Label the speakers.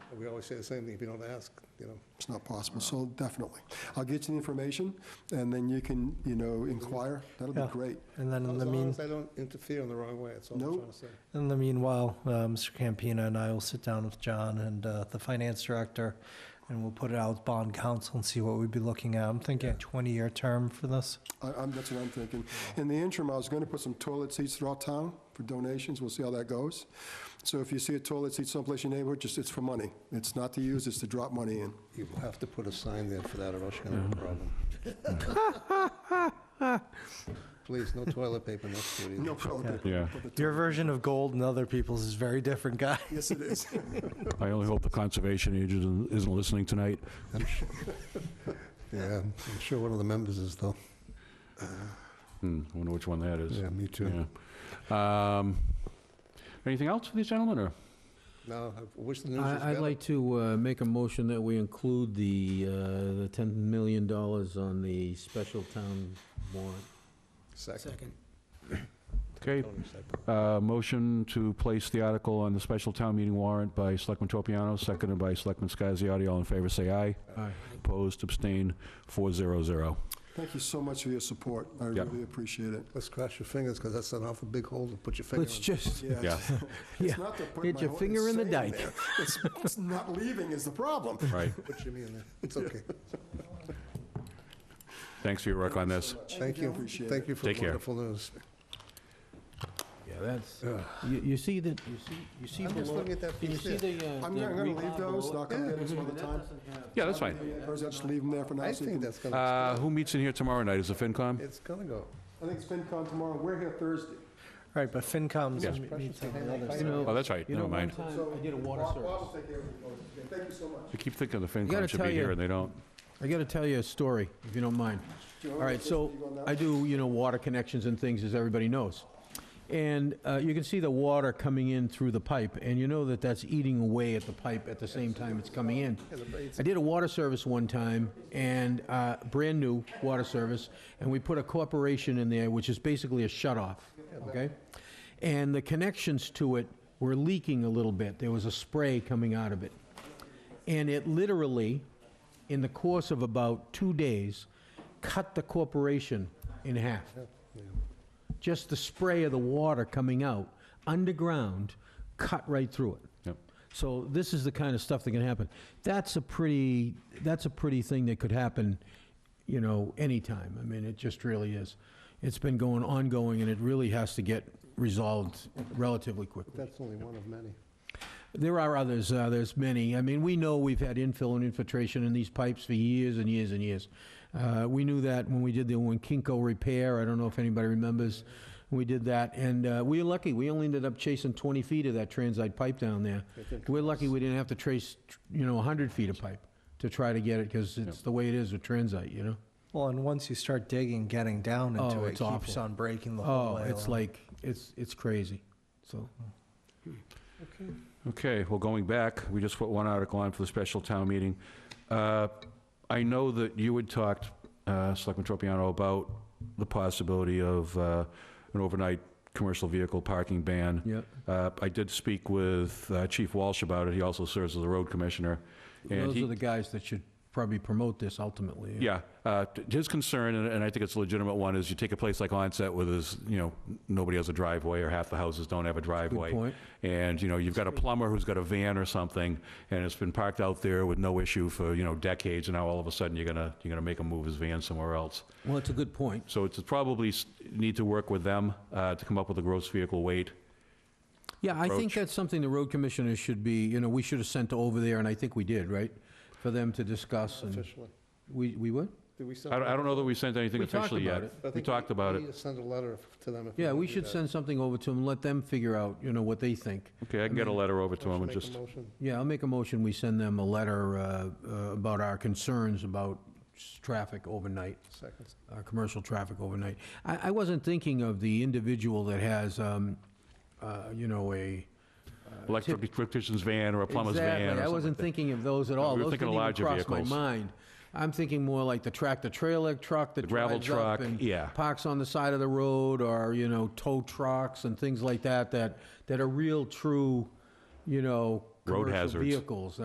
Speaker 1: We always say the same thing, if you don't ask, you know.
Speaker 2: It's not possible, so definitely. I'll get you the information, and then you can, you know, inquire. That'll be
Speaker 3: Yeah.
Speaker 2: great.
Speaker 3: And then in
Speaker 1: As
Speaker 3: the
Speaker 1: long
Speaker 3: mean,
Speaker 1: as I don't interfere in the wrong way, that's all I'm
Speaker 2: Nope.
Speaker 1: trying to say.
Speaker 3: in the meanwhile, uh, Mr. Campina and I will sit down with John and uh, the finance director, and we'll put it out with bond council and see what we'd be looking at. I'm thinking a 20-year term for this.
Speaker 2: I- I'm, that's what I'm thinking. In the interim, I was going to put some toilet seats throughout town for donations. We'll see how that goes. So if you see a toilet seat someplace in your neighborhood, just, it's for money. It's not to use, it's to drop money in.
Speaker 1: You have to put a sign there for that, or else you're gonna have a problem. Please, no toilet paper next to it either.
Speaker 2: No problem.
Speaker 4: Yeah,
Speaker 3: Your version of gold and other people's is very different, guy.
Speaker 2: Yes, it is.
Speaker 4: I only hope the conservation agent isn't listening tonight.
Speaker 1: Yeah, I'm sure one of the members is, though.
Speaker 4: Hmm, I wonder which one that is.
Speaker 1: Yeah, me too.
Speaker 4: Yeah. Um, Anything else for these gentlemen, or?
Speaker 1: No, I wish the news was
Speaker 5: I- I'd
Speaker 1: better.
Speaker 5: like to uh, make a motion that we include the, uh, the $10 million on the special town warrant.
Speaker 1: Second. Tony,
Speaker 4: Okay,
Speaker 1: second.
Speaker 4: uh, motion to place the article on the special town meeting warrant by Selectman Tropiano, seconded by Selectman Scasiotti. All in favor, say aye.
Speaker 5: Aye.
Speaker 4: Opposed, abstained, 400.
Speaker 2: Thank you so much for your support. I
Speaker 4: Yeah.
Speaker 2: really appreciate it.
Speaker 1: Let's cross your fingers, because that's an awful big hole to put your finger in.
Speaker 5: Let's just,
Speaker 4: Yeah.
Speaker 2: It's
Speaker 5: yeah,
Speaker 2: not to put
Speaker 5: get
Speaker 2: my
Speaker 5: your
Speaker 2: whole-
Speaker 5: finger in the
Speaker 2: it's saying
Speaker 5: dike.
Speaker 2: there. It's it's not leaving is the problem.
Speaker 4: Right.
Speaker 1: Put Jimmy in there. It's okay.
Speaker 4: Thanks for your work on this.
Speaker 1: Thank you.
Speaker 2: Appreciate
Speaker 1: Thank you for
Speaker 4: Take
Speaker 1: the
Speaker 4: care.
Speaker 1: wonderful news.
Speaker 5: yeah, that's,
Speaker 1: Ugh.
Speaker 5: you, you see that, you see, you
Speaker 1: I'm
Speaker 5: see
Speaker 1: just
Speaker 5: below.
Speaker 1: looking at that
Speaker 5: You
Speaker 1: piece
Speaker 5: see
Speaker 1: there.
Speaker 5: the, uh.
Speaker 2: I'm
Speaker 5: the
Speaker 2: not going to
Speaker 5: green
Speaker 2: leave
Speaker 5: bar
Speaker 2: those,
Speaker 5: below?
Speaker 2: knock them in some other time.
Speaker 4: Yeah, that's fine.
Speaker 2: Or is that just leave them there for now?
Speaker 1: I
Speaker 2: so you
Speaker 1: think
Speaker 2: can-
Speaker 1: that's gonna,
Speaker 4: Uh, Who meets in here tomorrow night? Is it FinCom?
Speaker 1: it's gonna go.
Speaker 2: I think it's FinCon tomorrow. We're here Thursday.
Speaker 3: Right, but FinCom's
Speaker 4: Yeah.
Speaker 3: meets on the other
Speaker 5: You
Speaker 3: side.
Speaker 5: know-
Speaker 4: Oh, that's right,
Speaker 5: You
Speaker 4: never
Speaker 5: know, one
Speaker 4: mind.
Speaker 5: time, I did a water
Speaker 2: Bob- Bob will
Speaker 5: service.
Speaker 2: take care of it. Okay, Thank you so much.
Speaker 4: I keep thinking the
Speaker 5: gotta
Speaker 4: FinCom should
Speaker 5: tell
Speaker 4: be here,
Speaker 5: you-
Speaker 4: and they don't.
Speaker 5: I got to tell you a story, if you don't mind. All right, so I do, you know, water connections and things, as everybody knows. And uh, you can see the water coming in through the pipe, and you know that that's eating away at the pipe at the same time it's coming in. I did a water service one time, and uh, brand new water service, and we put a corporation in there, which is basically a shutoff, okay? And the connections to it were leaking a little bit. There was a spray coming out of it. And it literally, in the course of about two days, cut the corporation in half. Just the spray of the water coming out underground cut right through it.
Speaker 4: Yep.
Speaker 5: So this is the kind of stuff that can happen. That's a pretty, that's a pretty thing that could happen, you know, anytime. I mean, it just really is. It's been going ongoing, and it really has to get resolved relatively quickly.
Speaker 1: That's only one of many.
Speaker 5: There are others, uh, there's many. I mean, we know we've had infill and infiltration in these pipes for years and years and years. Uh, We knew that when we did the one Kinko repair, I don't know if anybody remembers, we did that, and uh, we were lucky, we only ended up chasing 20 feet of that transite pipe down there. We're lucky we didn't have to trace, you know, 100 feet of pipe to try to get it, because it's the way it is with transite, you know?
Speaker 3: Well, and once you start digging, getting down into
Speaker 5: Oh,
Speaker 3: it,
Speaker 5: it's
Speaker 3: keeps
Speaker 5: awful.
Speaker 3: on breaking the whole
Speaker 5: Oh,
Speaker 3: way.
Speaker 5: it's
Speaker 3: along.
Speaker 5: like, it's, it's crazy, so.
Speaker 4: Okay, well, going back, we just put one article on for the special town meeting. Uh, I know that you had talked, uh, Selectman Tropiano, about the possibility of uh, an overnight commercial vehicle parking ban.
Speaker 5: Yep.
Speaker 4: Uh, I did speak with uh, Chief Walsh about it, he also serves as the road commissioner. and
Speaker 5: Those
Speaker 4: he-
Speaker 5: are the guys that should probably promote this ultimately.
Speaker 4: yeah, uh, t- his concern, and- and I think it's a legitimate one, is you take a place like Onset where there's, you know, nobody has a driveway, or half the houses don't have a driveway.
Speaker 5: point.
Speaker 4: And, you know, you've got a plumber who's got a van or something, and it's been parked out there with no issue for, you know, decades, and now all of a sudden, you're gonna, you're gonna make him move his van somewhere else.
Speaker 5: Well, it's a good point.
Speaker 4: So it's probably s- need to work with them uh, to come up with a gross vehicle weight.
Speaker 5: Yeah, I think
Speaker 4: approach.
Speaker 5: that's something the road commissioners should be, you know, we should have sent over there, and I think we did, right? For them to discuss and,
Speaker 1: Officially.
Speaker 5: we, we would?
Speaker 1: Did we send?
Speaker 4: I don't, I don't know that we sent anything
Speaker 5: We talked
Speaker 4: officially
Speaker 5: about
Speaker 4: yet.
Speaker 5: it.
Speaker 1: I
Speaker 4: We
Speaker 1: think
Speaker 4: talked about
Speaker 1: We
Speaker 4: it.
Speaker 1: need to send a letter f- to them. if
Speaker 5: Yeah,
Speaker 1: wanna
Speaker 5: we
Speaker 1: do
Speaker 5: should
Speaker 1: that.
Speaker 5: send something over to them, let them figure out, you know, what they think.
Speaker 4: Okay, I can get a letter over to
Speaker 1: Should
Speaker 4: him and
Speaker 1: make a
Speaker 4: just,
Speaker 1: motion.
Speaker 5: Yeah, I'll make a motion, we send them a letter uh, uh, about our concerns about s- traffic overnight.
Speaker 1: Seconds.
Speaker 5: uh, commercial traffic overnight. I, I wasn't thinking of the individual that has, um, uh, you know, a.
Speaker 4: electric electrician's van or a plumber's van or something
Speaker 5: Exactly, I wasn't
Speaker 4: like that.
Speaker 5: thinking of those at all.
Speaker 4: we were
Speaker 5: Those
Speaker 4: thinking of
Speaker 5: didn't even
Speaker 4: larger
Speaker 5: cross my
Speaker 4: vehicles.
Speaker 5: mind. I'm thinking more like the tractor-trailer truck that
Speaker 4: The gravel
Speaker 5: drives up
Speaker 4: truck,
Speaker 5: and
Speaker 4: yeah.
Speaker 5: parks on the side of the road, or, you know, tow trucks and things like that, that, that are real, true, you know,
Speaker 4: Road
Speaker 5: commercial
Speaker 4: hazards.
Speaker 5: vehicles.